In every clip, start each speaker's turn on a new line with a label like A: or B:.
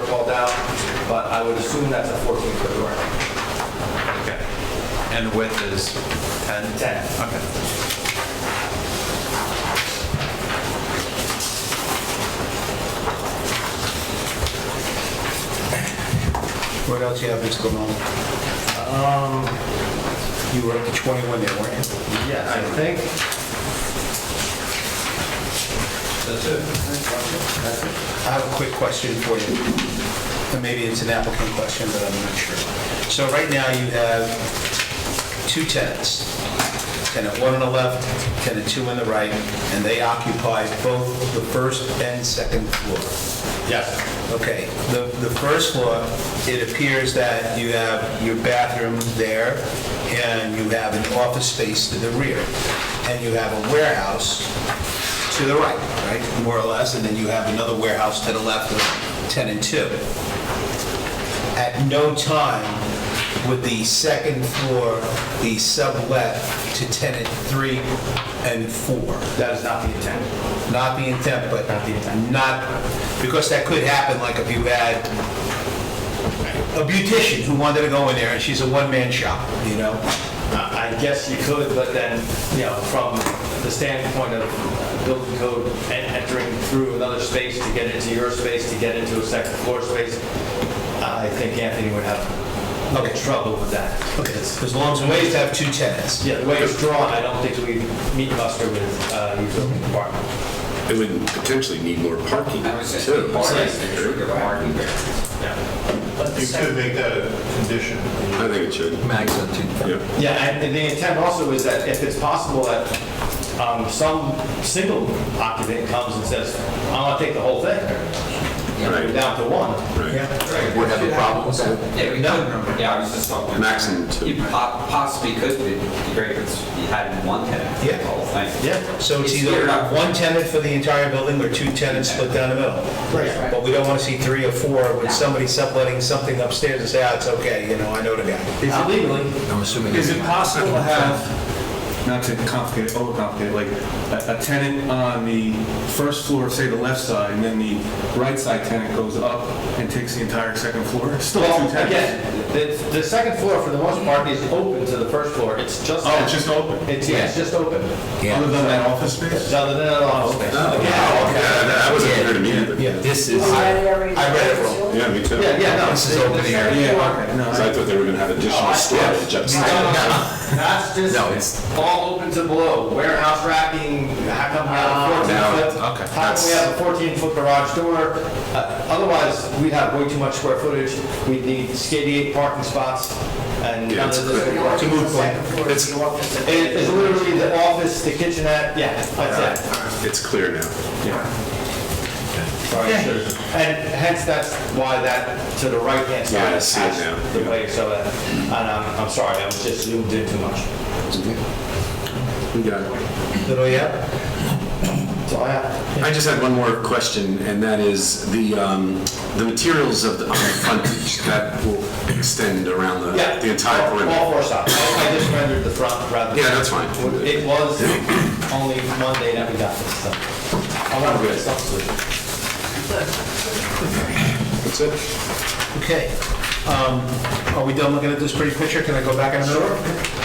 A: are called out, but I would assume that's a 14-foot door.
B: Okay. And width is 10?
A: 10.
B: Okay.
C: What else you have, Mr. Malone? Um, You were up to 21 there, weren't you?
A: Yeah, I think. That's it.
C: I have a quick question for you. And maybe it's an applicant question, but I'm not sure. So right now, you have two tenants. Tenant one on the left, tenant two on the right, and they occupy both the first and second floor.
A: Yes.
C: Okay, the, the first floor, it appears that you have your bathroom there, and you have an office space to the rear, and you have a warehouse to the right, right, more or less, and then you have another warehouse to the left of tenant two. At no time would the second floor be sublet to tenant three and four
A: That is not the intent.
C: not the intent, but not, because that could happen, like if you had a beautician who wanted to go in there, and she's a one-man shop, you know?
A: Uh, I guess you could, but then, you know, from the standpoint of building code and entering through another space to get into your space, to get into a second floor space, I think Anthony would have
C: Okay.
A: trouble with that. It's-
C: As long as we always have two tenants.
A: Yeah, the way it's drawn, I don't think we meet muster with uh, the building department.
D: It would potentially need more parking,
E: I was just,
D: too.
E: parking there.
F: You could make that a condition.
D: I think it should.
B: Max on two.
D: Yeah.
A: Yeah, and and the intent also is that if it's possible that um, some single occupant comes and says, I want to take the whole thing,
D: Right.
A: down to one.
D: Right.
G: Would have a problem with that?
E: Yeah, we don't, yeah, I was just talking.
D: Maximum two.
E: You po- possibly could, but it'd be great if it's- you had one tenant, for
C: Yeah.
E: the whole thing.
A: Yeah.
C: So it's
E: It's
C: either
E: cleared up.
C: one tenant for the entire building, or two tenants split down the middle.
E: Right.
C: But we don't want to see three or four with somebody subletting something upstairs and say, ah, it's okay, you know, I know the guy.
A: Is it legally?
B: I'm assuming.
H: Is it possible to have, not to complicate, it, overcomplicate, it, like a a tenant on the first floor, say the left side, and then the right side tenant goes up and takes the entire second floor? It's Still two
A: Well,
H: tenants?
A: again, the, the second floor for the most part is open to the first floor. It's just.
H: Oh, it's just open?
A: It's, yeah, it's just open.
H: Other than that office
A: It's
H: space?
A: other than an office space.
D: Oh, Yeah, that that wasn't clear to me either.
C: Yeah.
G: This is,
C: I read it wrong.
D: Yeah, me too.
A: Yeah, yeah, no. Oh,
C: This is
A: the- the
C: open here.
A: second
H: Yeah,
A: floor-
H: okay, no.
D: Because Oh, I thought they were going to have additional storage
A: No,
D: upstairs.
A: no, no. That's
G: No,
A: just
G: it's-
A: all open to below, warehouse racking, how come we
D: Ah,
A: have a 14 foot?
D: now, okay,
A: How come we
D: that's-
A: have a 14 foot garage door? Uh, Otherwise, we'd have way too much square footage, we'd need 88 parking spots and
D: Yeah,
A: none
D: it's
A: of this. would work.
D: clear.
G: it's,
A: It- It's literally the office, the kitchenette, yeah, that's it.
D: It's clear now.
A: Sorry, sure. And hence, that's why that, to the right-hand side,
D: Yeah, I
A: is
D: see it now,
A: attached the
D: yeah.
A: way, so that, and I'm, I'm sorry, I was just zoomed in too much.
D: We got it.
C: Little, yeah?
A: So oh, I have,
D: I just had one more question, and that is the, um, the materials of the, on the frontage that will extend around the,
A: yeah.
D: the entire
A: all- All
D: perimeter.
A: four sides. I I just rendered the front rather than.
D: Yeah, that's fine.
A: It was only Monday that we got this stuff. I want to get something.
D: That's it.
C: Okay. Um, Are we done looking at this pretty picture? Can I go back in a minute? So-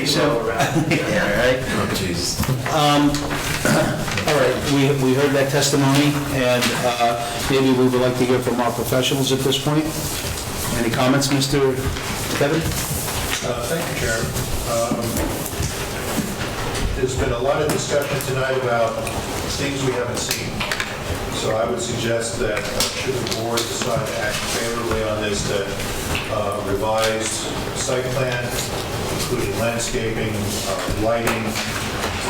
C: Yeah, all right. Um,
G: oh, jeez.
C: All right, we we heard that testimony, and uh, maybe we would like to hear from our professionals at this point. Any comments, Mr. Kevin?
F: Uh, Thank you, Chairman. Um, There's been a lot of discussion tonight about things we haven't seen. So I would suggest that uh, should the board decide to act favorably on this, that uh, revised site plan, including landscaping, uh, lighting,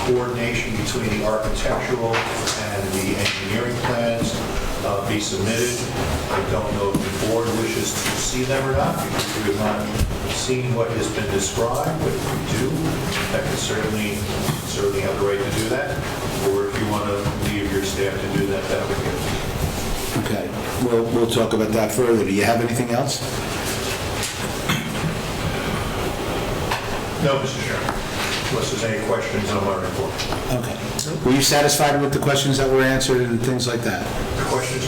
F: coordination between the architectural and the engineering plans uh, be submitted. I don't know if the board wishes to see them or not, because we have not seen what has been described, but if we do, that could certainly, certainly have the right to do that. Or if you want to leave your staff to do that, that would be.
C: Okay, we'll we'll talk about that further. Do you have anything else?
F: No, Mr. Chairman, unless there's any questions on my report.
C: Okay. Were you satisfied with the questions that were answered and things like that?
F: Questions